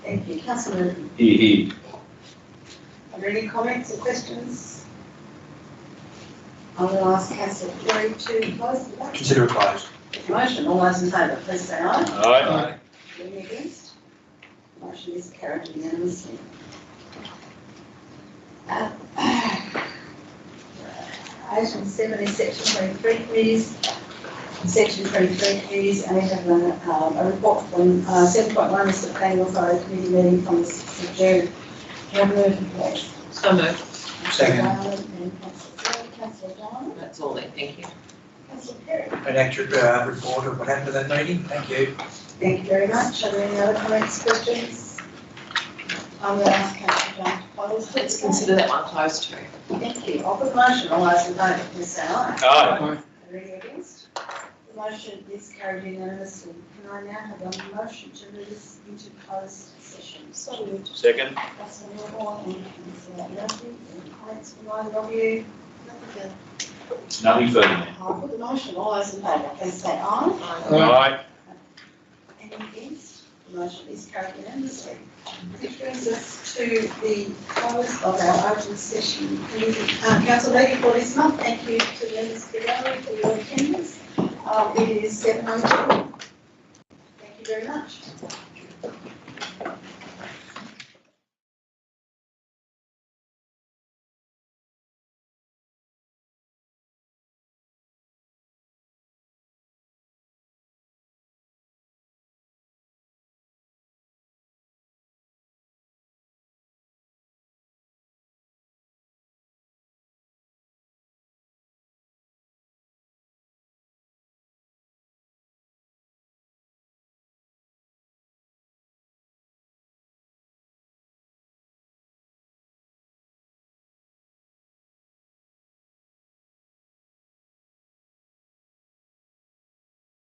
Thank you. Councilman, He, he. are there any comments or questions? I will ask Council Floyd to close the vote. Consider advised. Motion, all those in favour, please say aye. Aye. Any against? Motion is carried unanimously. Uh, Item seven is section twenty-three committees. Section twenty-three committees, and we have a, um, a report from, uh, seven point one is the planning authority committee meeting from the sixth of June. Your move, please. So moved, Second. Councillor Donovan, that's all then, thank you. Councillor Perry. An accurate uh, report of what happened at that meeting. Thank you. Thank you very much. Are there any other comments, questions? I'm going to ask Councillor John to close. the Let's consider that one closed too. Thank you. I'll put motion, all those in favour, please say aye. Aye. Are there any against? The motion is carried unanimously. Can I now have a motion to move this into closed session? So moved. Second? Councillor Moore and Councillor Murphy, any comments from either of you? Nothing Nothing further, to- ma'am. I'll put the motion, all those in favour, please say aye. Aye. Any against? The motion is carried unanimously. Which brings us to the close of our open session. Um, council meeting for this month, thank you to the members of the gallery for your attendance. Um, it is seven oh two. Thank you very much.